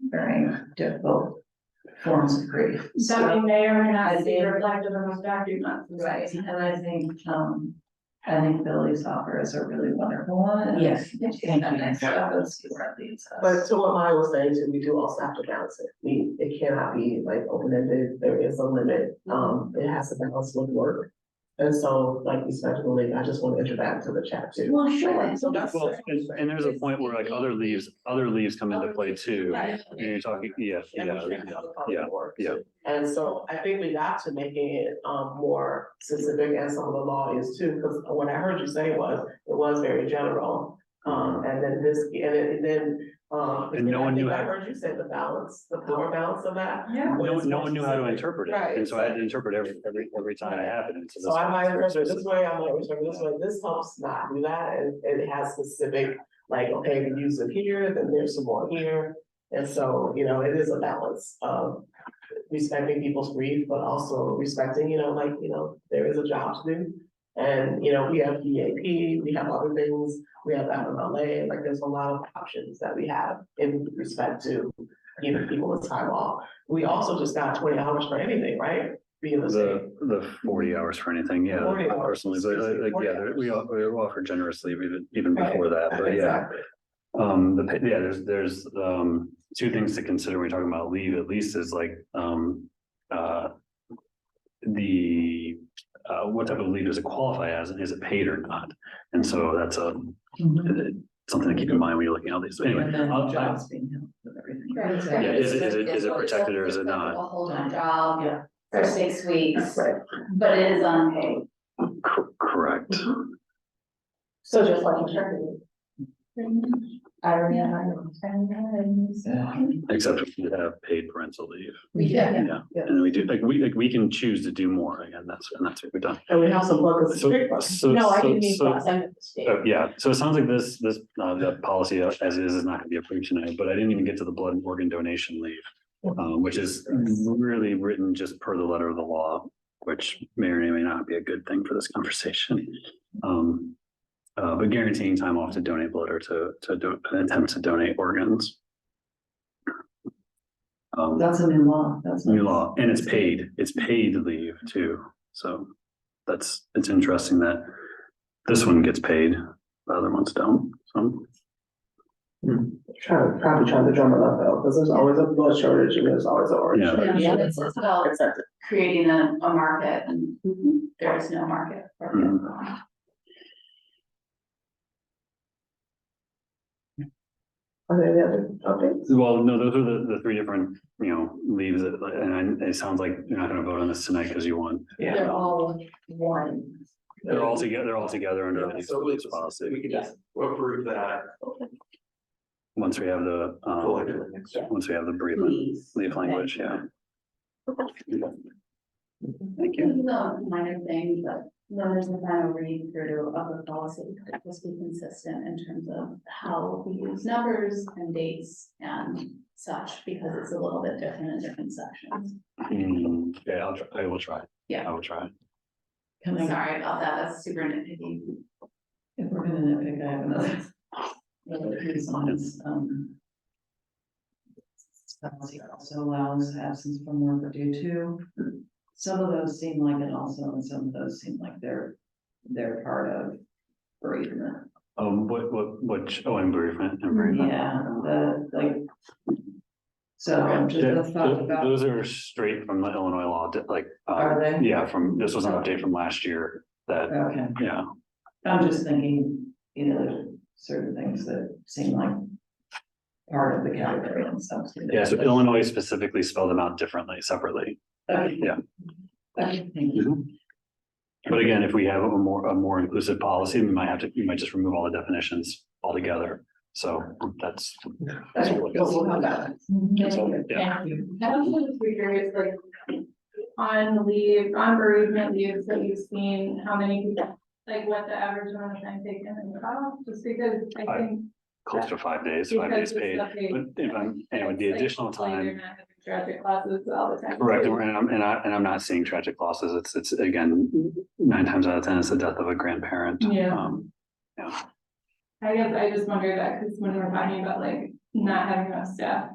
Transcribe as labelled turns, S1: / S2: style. S1: very difficult forms of grief.
S2: That we may or may
S1: I
S2: not see
S1: think-
S2: reflected in those documents.
S1: Right, and I think, um, I think Billy's offer is a really wonderful one. and
S3: Yes.
S1: It's kind of nice to have those two where it leads us.
S4: But to what Maya was saying, too, we do also have to balance it. We, it cannot be like open-ended, there is a limit, um, it has to balance with work. And so, like you said, Malik, I just want to enter that into the chat too.
S1: Well, sure.
S4: So that's-
S5: Well, and, and there's a point where like other leaves, other leaves come into play too.
S2: Right.
S5: And you're talking, yeah,
S4: And we
S5: yeah,
S4: can't
S5: yeah,
S4: have a public
S5: yeah.
S4: work. And so I think we got to making it um more specific as some of the law is too, because what I heard you say was, it was very general. Um, and then this, and then, and then, um.
S5: And no one knew
S4: I think
S5: how-
S4: I heard you say the balance, the power balance of that.
S2: Yeah.
S5: No, one- no one knew how to interpret it.
S4: Right.
S5: And so I had to interpret every, every, every time it happened.
S4: So I might remember this way, I might remember this way, this helps not do that, and and it has specific, like, okay, we use it here, then there's some more here. And so, you know, it is a balance of respecting people's grief, but also respecting, you know, like, you know, there is a job to do. And, you know, we have EAP, we have other things, we have FMLA, like, there's a lot of options that we have in respect to giving people the time off. We also just got twenty hours for anything, right? Being the same.
S5: The, the forty hours for anything, yeah,
S4: 40 hours,
S5: personally, but uh,
S4: excuse me,
S5: like,
S4: 40
S5: yeah, there- we,
S4: hours.
S5: all- we were offered generously even, even before that, but yeah.
S4: Exactly.
S5: Um, the, pa- yeah, there's, there's, um, two things to consider when you're talking about leave at least is like, um, uh. The, uh, what type of leave does it qualify as? and Is it paid or not? And so that's a,
S3: Mm-hmm.
S5: something to keep in mind when you're looking at all these. Anyway,
S1: And then
S5: I'll- I-
S1: jobs being held with everything.
S3: Right.
S5: Yeah, is it, is it, is it protected or is it
S3: A
S5: not?
S3: full-time job
S4: Yeah.
S3: for six weeks,
S4: Right.
S3: but it is unpaid.
S5: Cor- Correct.
S4: So just like maternity. I remember.
S5: Except if you have paid parental leave.
S1: Yeah.
S5: Yeah.
S4: Yeah.
S5: And we do, like, we, like, we can choose to do more again. That's, and that's what we've done.
S4: And we have some workers.
S5: So, so,
S2: No, I
S5: so,
S2: didn't mean
S5: so-
S2: that, I'm at the state.
S5: so, yeah, so it sounds like this, this, uh, the policy as is is not gonna be approved tonight, but I didn't even get to the blood and organ donation leave. Uh, which is really written just per the letter of the law, which may or may not be a good thing for this conversation. Um, uh, but guaranteeing time off to donate blood or to, to do, attempt to donate organs. Um,
S1: That's a new law, that's.
S5: new law, and it's paid, it's paid leave too, so that's, it's interesting that this one gets paid, the other ones don't, so.
S4: Trying, probably trying to drum it up though, because there's always a blood shortage and there's always a orange.
S5: Yeah.
S3: Yeah, but it's, it's about
S4: Accepted.
S3: creating a, a market and
S1: Mm-hmm.
S3: there is no market for it.
S5: Mhm.
S4: Are there any other updates?
S5: Well, no, those are the, the three different, you know, leaves, that- and I- it sounds like you're not gonna vote on this tonight because you want,
S4: Yeah.
S2: They're all one.
S5: they're all together, they're all together under
S6: Yeah,
S5: these
S6: so we
S5: leaves
S6: just-
S5: policy,
S6: We can just approve that.
S5: once we have the, um,
S6: collectively next time.
S5: once we have the bereavement
S3: Please.
S5: leave language, yeah. Thank
S3: This
S5: you.
S3: is a minor thing, but no, there's a kind of read through of the policy, that just be consistent in terms of how we use numbers and dates and such, because it's a little bit different in different sections.
S5: Mm, Yeah, I'll, try. I will try.
S3: Yeah.
S5: I will try.
S1: Can I,
S3: Sorry about that, that's super nitpicky.
S1: if we're gonna nitpick, I have another. Another piece on this, um. this Policy also allows absence from work due to, some of those seem like it also, and some of those seem like they're, they're part of bereavement.
S5: Um, what, what, what, oh, and bereavement, and bereavement.
S1: Yeah, the, like. So just
S5: Yeah,
S1: the thought
S5: tho-
S1: about,
S5: Those are straight from the Illinois law, di- like, uh,
S1: are they?
S5: yeah, from, this was an update from last year that,
S1: Okay,
S5: yeah.
S1: I'm just thinking, you know, there's certain things that seem like part of the category and stuff.
S5: Yeah, so Illinois specifically spelled them out differently, separately.
S1: Okay.
S5: yeah.
S1: Okay, thank you.
S5: But again, if we have a more, a more inclusive policy, we might have to, we might just remove all the definitions altogether. So that's. that's really
S1: But we'll have that.
S5: Mm-hmm. Yeah.
S2: And I was just curious, like, on leave, on bereavement leaves that you've seen, how many people, like, what the average amount of time taken and off, just because I
S5: I-
S2: think.
S5: Close to five days, five
S2: because
S5: days
S2: it's
S5: paid.
S2: not paid,
S5: But if I'm, and with the
S2: it's like,
S5: additional
S2: hopefully
S5: time.
S2: They're not having tragic classes all the time.
S5: Correct, and we're- and I'm, and I, and I'm not seeing tragic losses, it's, it's again, nine times out of ten, it's the death of a grandparent.
S2: Yeah.
S5: Um, Yeah,
S2: I guess I just wondered that, because when we're talking about like not having enough staff